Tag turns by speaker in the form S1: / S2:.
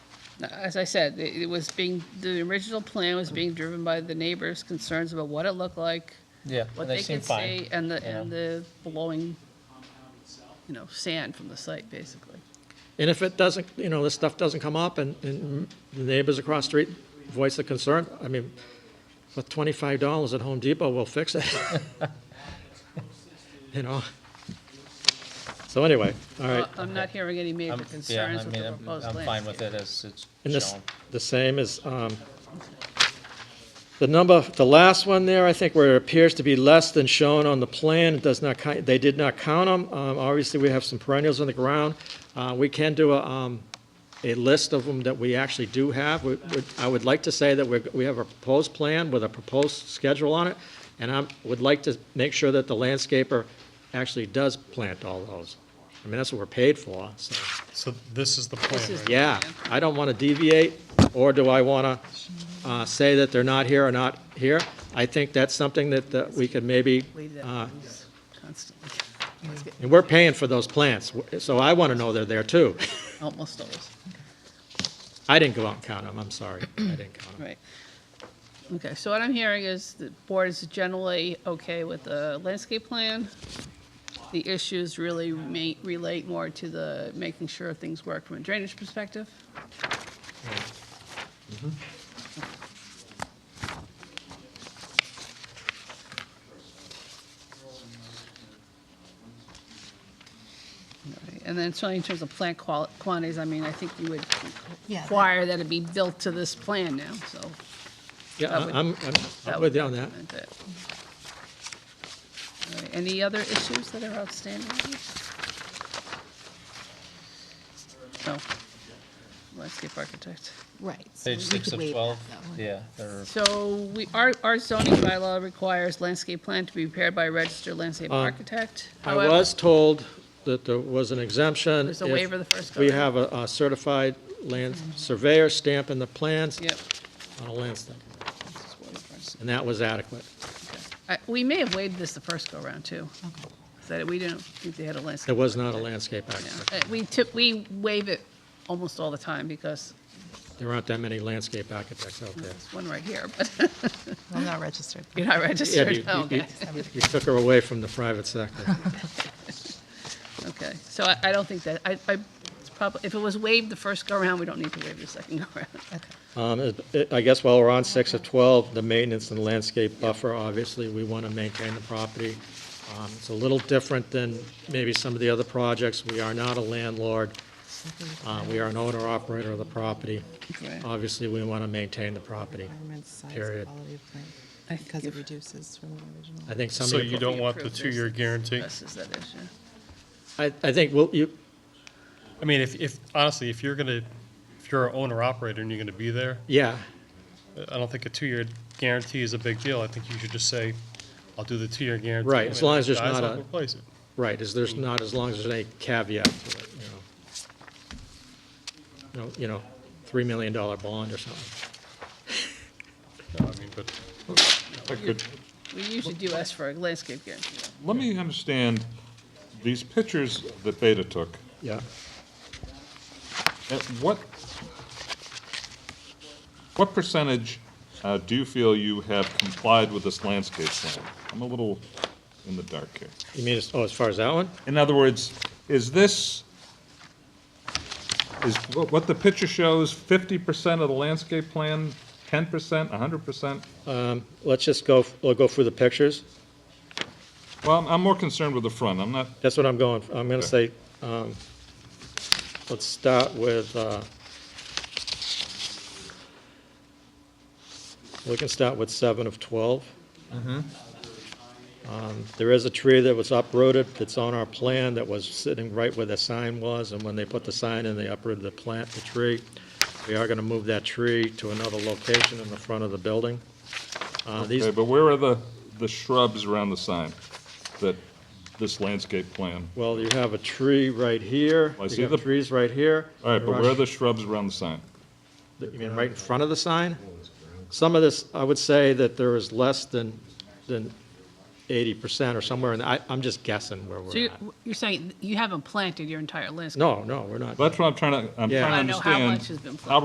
S1: as I said, it it was being, the original plan was being driven by the neighbors' concerns about what it looked like,
S2: Yeah,
S1: what
S2: and they
S1: they
S2: seem
S1: could
S2: fine.
S1: see, and the,
S2: you
S1: and the blowing, you know, sand from the site, basically.
S3: And if it doesn't, you know, this stuff doesn't come up and, and the neighbors across the street voice the concern, I mean, with twenty-five dollars at Home Depot, we'll fix it. You know? So anyway, all right,
S1: Uh, I'm not hearing any
S2: I'm-
S1: major
S2: yeah,
S1: concerns
S2: I
S1: with
S2: mean,
S1: the
S2: I'm-
S1: proposed
S2: I'm fine with
S1: landscape.
S2: it as it's
S3: and this,
S2: shown.
S3: the same is, um, the number, the last one there, I think where it appears to be less than shown on the plan, it does not, ki- they did not count them. Um, obviously, we have some perennials on the ground. Uh, we can do a, um, a list of them that we actually do have. We- we- I would like to say that we're, we have a proposed plan with a proposed schedule on it, and I would like to make sure that the landscaper actually does plant all those. I mean, that's what we're paid for, so,
S4: So this is the plan,
S1: is-
S4: right?
S3: yeah. I don't want to deviate, or do I want to say that they're not here or not here? I think that's something that, that we could maybe,
S1: Leave that
S3: uh,
S1: loose constantly,
S3: and we're paying for those plants, so I want to know they're there too.
S1: almost always,
S3: I didn't go out and count them, I'm sorry, I didn't count them.
S1: right. Okay, so what I'm hearing is the board is generally okay with the landscape plan. The issues really ma- relate more to the making sure things work from a drainage perspective. Right, And then so in terms of plant qual- quantities, I mean, I think you would
S5: Yeah.
S1: require that it be built to this plan now, so.
S3: Yeah, I- I'm, I'm-
S1: that
S3: I'm
S1: would
S3: with you on that.
S1: document it. All right, Any other issues that are outstanding? No. Landscape architect.
S5: Right. so
S2: Page
S5: we
S2: six
S5: could
S2: of
S5: waive that,
S2: 12,
S5: that one.
S2: yeah, they're-
S1: So we, our, our zoning bylaw requires landscape plan to be prepared by a registered landscape architect.
S3: Uh, I
S1: However,
S3: was told that there was an exemption.
S1: There's a
S3: if
S1: waiver the first go.
S3: We have a a certified land surveyor stamp in the plans
S1: Yep.
S3: on a land stamp, and that was adequate.
S1: I- We may have waived this the first go-around, too. Is That we didn't think they had a landscape.
S3: There was not a landscape
S1: Yeah,
S3: architect.
S1: uh, We tip, we waive it almost all the time because
S3: There aren't that many landscape architects out there.
S1: there's one right here, but
S5: Well, not registered.
S1: you're not
S3: Yeah, you-
S1: registered. Oh,
S3: you-
S1: Okay,
S3: you- You took her away from the private sector.
S1: okay. So I, I don't think that, I, I, it's probably, if it was waived the first go-around, we don't need to waive the second go-around.
S5: Okay.
S3: Um, it- I guess while we're on six of 12, the maintenance and landscape buffer, obviously, we want to maintain the property. Um, It's a little different than maybe some of the other projects. We are not a landlord. Uh, We are an owner-operator of the property.
S1: Right.
S3: Obviously, we want to maintain the property.
S5: Environment, size,
S3: Period.
S5: quality of plant,
S1: I think
S5: Because it
S1: you've-
S5: reduces from the original.
S3: I think some of
S4: So
S3: the...
S4: you don't want the
S1: Approved this.
S4: two-year guarantee?
S1: Addresses that issue.
S3: I I think, we'll you,
S4: I mean, if, if, honestly, if you're gonna, if you're an owner-operator and you're gonna be there,
S3: yeah,
S4: I don't think a two-year guarantee is a big deal. I think you should just say, I'll do the two-year guarantee.
S3: Right, as long as there's
S4: Guys,
S3: not
S4: I'll
S3: a-
S4: replace it.
S3: right, is there's not, as long as there's any caveat to it, you know. No, You know, $3 million bond or something.
S4: No, I mean, but
S1: We usually do ask for a landscape guarantee.
S6: Let me understand, these pictures that Beta took,
S3: Yeah.
S6: at what, what percentage uh, do you feel you have complied with this landscape plan? I'm a little in the dark here.
S3: You mean, as- oh, as far as that one?
S6: In other words, is this, is wha- what the picture shows, fifty percent of the landscape plan, ten percent, hundred percent?
S3: Let's just go, we'll go through the pictures.
S6: Well, I'm- I'm more concerned with the front, I'm not,
S3: That's what I'm going, I'm going to say,
S6: Okay.
S3: um, let's start with, uh, we can start with seven of 12.
S6: Mm-hmm.
S3: Um, There is a tree that was uprooted that's on our plan that was sitting right where the sign was, and when they put the sign in, they uprooted the plant, the tree. We are going to move that tree to another location in the front of the building. Uh, These,
S6: okay, but where are the, the shrubs around the sign that this landscape plan?
S3: Well, you have a tree right here.
S6: I
S3: You
S6: see
S3: have
S6: the-
S3: trees right here.
S6: All right,
S3: There
S6: but where are
S3: sh-
S6: the shrubs around the sign?
S3: You mean right in front of the sign? Some of this, I would say that there is less than, than eighty percent or somewhere, and I, I'm just guessing where
S1: So
S3: we're at.
S1: you're, you're saying you haven't planted your entire landscape?
S3: No, no, we're not.
S6: That's what I'm trying to, I'm
S3: Yeah.
S6: trying to
S1: I know how
S6: understand.
S1: much has been
S6: how